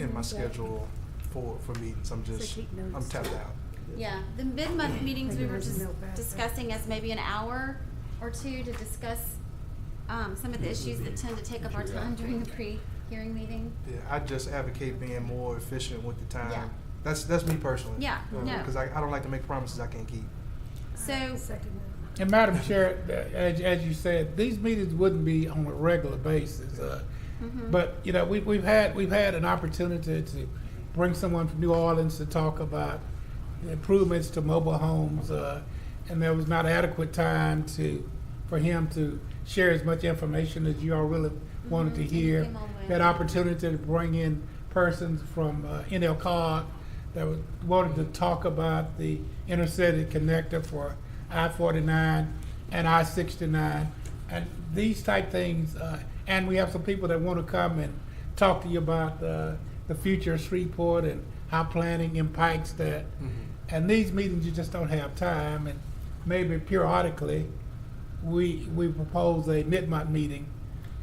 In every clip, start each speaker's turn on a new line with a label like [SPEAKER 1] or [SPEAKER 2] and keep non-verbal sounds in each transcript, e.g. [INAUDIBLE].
[SPEAKER 1] in my schedule for, for meetings. I'm
[SPEAKER 2] So
[SPEAKER 1] just,
[SPEAKER 2] take
[SPEAKER 1] I'm
[SPEAKER 2] notes.
[SPEAKER 1] tapped out.
[SPEAKER 3] Yeah, the mid-month meetings, we were
[SPEAKER 2] Regulars
[SPEAKER 3] just
[SPEAKER 2] know better.
[SPEAKER 3] discussing as maybe an hour or two to discuss, um, some of the issues that tend to take up our time during the pre-hearing meeting.
[SPEAKER 1] Yeah, I just advocate being more efficient with the
[SPEAKER 3] Yeah.
[SPEAKER 1] time. That's, that's me personally.
[SPEAKER 3] Yeah, no.
[SPEAKER 1] Because I, I don't like to make promises I can't keep.
[SPEAKER 3] So,
[SPEAKER 2] Second that.
[SPEAKER 4] And Madam Chair, uh, as, as you said, these meetings wouldn't be on a regular basis. uh,
[SPEAKER 3] mhm.
[SPEAKER 4] But, you know, we, we've had, we've had an opportunity to bring someone from New Orleans to talk about the improvements to mobile homes. uh, And there was not adequate time to, for him to share as much information as you all really wanted to
[SPEAKER 3] Mhm,
[SPEAKER 4] hear.
[SPEAKER 3] anything on that.
[SPEAKER 4] That opportunity to bring in persons from uh, NL cog that was- wanted to talk about the intercity connector for I-49 and I-69. And these type things, uh, and we have some people that want to come and talk to you about uh, the future of Shreveport and how planning impacts that.
[SPEAKER 1] Mm.
[SPEAKER 4] And these meetings, you just don't have time, and maybe periodically, we, we propose a midnight meeting,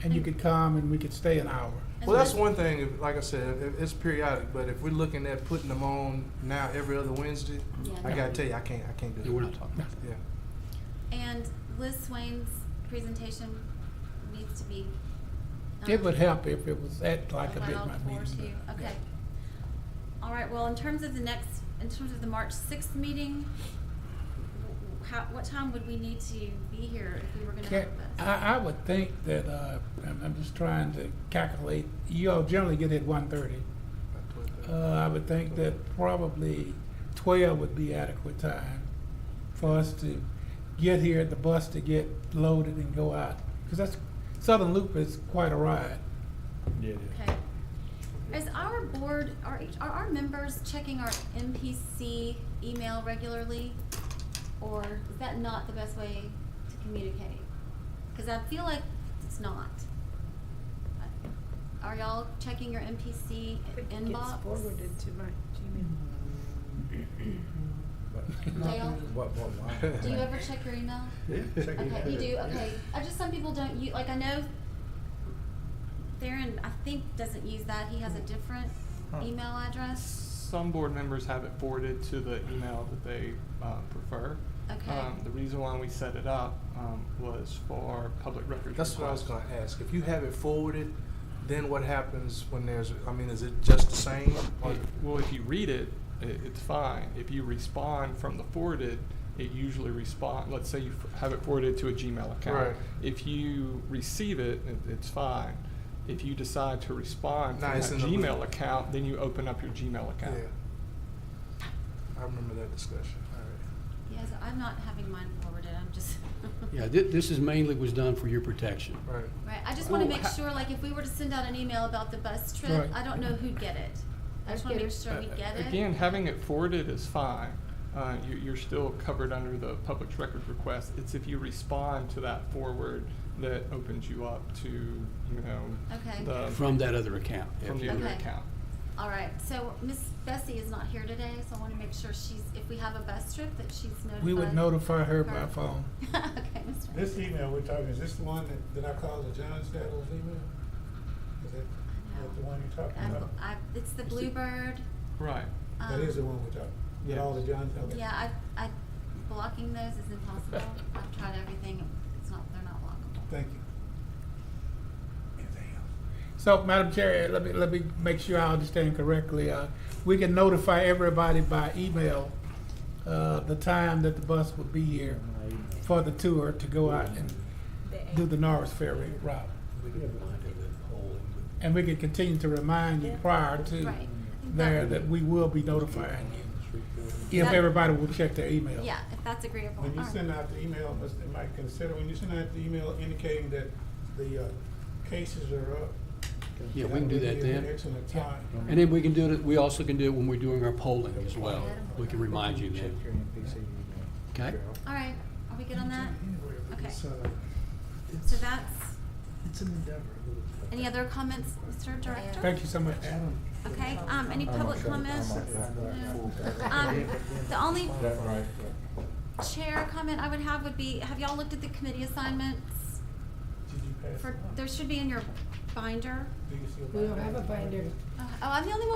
[SPEAKER 4] and you could come and we could stay an hour.
[SPEAKER 1] Well, that's one thing, if- like I said, if- it's periodic, but if we're looking at putting them on now every other Wednesday,
[SPEAKER 3] Yeah.
[SPEAKER 1] I gotta tell you, I can't, I can't do it.
[SPEAKER 5] Yeah, we're not talking about
[SPEAKER 1] Yeah.
[SPEAKER 3] And Liz Swain's presentation needs to be. um,
[SPEAKER 4] It would help if it was at like a
[SPEAKER 3] allowed
[SPEAKER 4] midnight
[SPEAKER 3] for too,
[SPEAKER 4] meeting.
[SPEAKER 3] okay. All right, well, in terms of the next, in terms of the March sixth meeting, wh- wh- how, what time would we need to be here if we were gonna
[SPEAKER 4] Ca-
[SPEAKER 3] have this?
[SPEAKER 4] I, I would think that, uh, I'm, I'm just trying to calculate, you all generally get at one thirty.
[SPEAKER 1] About twelve thirty.
[SPEAKER 4] Uh, I would think that probably twelve would be adequate time for us to get here at the bus to get loaded and go out. Cause that's, Southern Loop is quite a ride.
[SPEAKER 5] Yeah,
[SPEAKER 3] Okay. Is our board, are, each- are our members checking our MPC email regularly? Or is that not the best way to communicate? Cause I feel like it's not. Are y'all checking your MPC
[SPEAKER 2] It gets
[SPEAKER 3] inbox?
[SPEAKER 2] Forwarded to my Gmail.
[SPEAKER 3] Dale?
[SPEAKER 5] What, what, what?
[SPEAKER 3] [LAUGHS] Do you
[SPEAKER 6] [LAUGHS]
[SPEAKER 3] ever check your email?
[SPEAKER 5] Yeah, check
[SPEAKER 3] Okay,
[SPEAKER 5] it.
[SPEAKER 3] you do, okay. I just, some people don't use, like, I know Theron, I think, doesn't use that. He has a different
[SPEAKER 1] Huh.
[SPEAKER 3] email address.
[SPEAKER 7] Some board members have it forwarded to the email that they uh, prefer.
[SPEAKER 3] Okay.
[SPEAKER 7] Um, The reason why we set it up um, was for public records.
[SPEAKER 1] That's what I was
[SPEAKER 7] requests.
[SPEAKER 1] gonna ask. If you have it forwarded, then what happens when there's, I mean, is it just the same? Or-
[SPEAKER 7] Well, if you read it, it, it's fine. If you respond from the forwarded, it usually respond, let's say you f- have it forwarded to a Gmail account.
[SPEAKER 1] Right.
[SPEAKER 7] If you receive it, it, it's fine. If you decide to respond
[SPEAKER 1] Nah,
[SPEAKER 7] from
[SPEAKER 1] it's
[SPEAKER 7] that
[SPEAKER 1] in the loop.
[SPEAKER 7] Gmail account, then you open up your Gmail account.
[SPEAKER 1] Yeah. I remember that discussion, all
[SPEAKER 3] Yes, I'm not having mine forwarded, I'm just. [LAUGHS]
[SPEAKER 5] Yeah, thi- this is mainly was done for your protection.
[SPEAKER 1] right, right.
[SPEAKER 3] Right, I just wanna
[SPEAKER 7] Oh,
[SPEAKER 3] make
[SPEAKER 7] ha-
[SPEAKER 3] sure, like, if we were to send out an email about the bus trip,
[SPEAKER 4] Right.
[SPEAKER 3] I don't know who'd get it. I just wanna make sure we
[SPEAKER 7] Uh,
[SPEAKER 3] get it.
[SPEAKER 7] Again, having it forwarded is fine. Uh, you, you're still covered under the public record request. It's if you respond to that forward that opens you up to, you know,
[SPEAKER 3] Okay.
[SPEAKER 7] the,
[SPEAKER 5] From that other account.
[SPEAKER 7] from the other
[SPEAKER 3] Okay.
[SPEAKER 7] account.
[SPEAKER 3] All right, so Miss Bessie is not here today, so I wanna make sure she's, if we have a bus trip, that she's notified.
[SPEAKER 4] We would notify her by
[SPEAKER 3] uh, Her.
[SPEAKER 4] phone.
[SPEAKER 3] [LAUGHS] Okay, Mr.
[SPEAKER 6] This email we're talking, is this the one that, that I called the John Staddles email? Is that,
[SPEAKER 3] I know.
[SPEAKER 6] that the one you're talking
[SPEAKER 3] I've-
[SPEAKER 6] about?
[SPEAKER 3] I've- It's the Bluebird.
[SPEAKER 7] Right.
[SPEAKER 6] That
[SPEAKER 3] um,
[SPEAKER 6] is the one we're talking, with all the John, okay.
[SPEAKER 3] Yeah, I, I, blocking those is impossible. I've tried everything, it's not, they're not blockable.
[SPEAKER 6] Thank you. Anything else?
[SPEAKER 4] So, Madam Chair, let me, let me make sure I understand correctly. Uh, We can notify everybody by email uh, the time that the bus would be here for the tour to go out and do the Norris Ferry route. And we can continue to remind you prior to
[SPEAKER 3] Right. I think
[SPEAKER 4] there
[SPEAKER 3] that-
[SPEAKER 4] that we will be notifying you if
[SPEAKER 3] That-
[SPEAKER 4] everybody will check their email.
[SPEAKER 3] Yeah, if that's agreeable.
[SPEAKER 6] When you
[SPEAKER 3] All right.
[SPEAKER 6] send out the email, Mr. Mike, consider, when you send out the email indicating that the, uh, cases are up.
[SPEAKER 5] Yeah, we can do that
[SPEAKER 6] would be an
[SPEAKER 5] then.
[SPEAKER 6] Excellent time.
[SPEAKER 5] And then we can do it, we also can do it when we're doing our polling as well. We can remind you then. Okay?
[SPEAKER 3] All right, are we good on that?
[SPEAKER 6] Anywhere, but
[SPEAKER 3] Okay.
[SPEAKER 6] it's, uh, it's-
[SPEAKER 3] So that's,
[SPEAKER 6] It's an endeavor.
[SPEAKER 3] any other comments, Mr. Director?
[SPEAKER 4] Thank you so much.
[SPEAKER 3] Okay, um, any public comments? No. Um, the only chair comment I would have would be, have y'all looked at the committee assignments?
[SPEAKER 6] Did you pass?
[SPEAKER 3] For,
[SPEAKER 6] it on?
[SPEAKER 3] there should be in your binder.
[SPEAKER 8] do you see a binder?
[SPEAKER 3] We don't have a binder.
[SPEAKER 6] Oh, I'm the only one